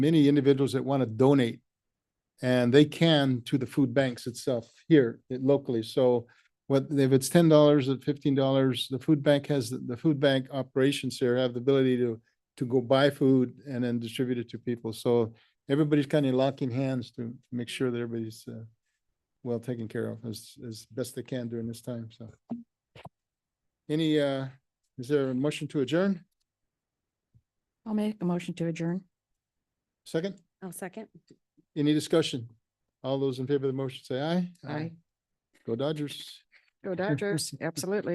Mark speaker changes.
Speaker 1: many individuals that want to donate. And they can to the food banks itself here eh, locally. So what, if it's ten dollars or fifteen dollars, the food bank has, the food bank operations here have the ability to, to go buy food and then distribute it to people. So everybody's kind of locking hands to make sure that everybody's uh, well taken care of as, as best they can during this time, so. Any, uh, is there a motion to adjourn?
Speaker 2: I'll make a motion to adjourn.
Speaker 1: Second?
Speaker 2: I'll second.
Speaker 1: Any discussion? All those in favor of the motion say aye.
Speaker 2: Aye.
Speaker 1: Go Dodgers.
Speaker 2: Go Dodgers, absolutely.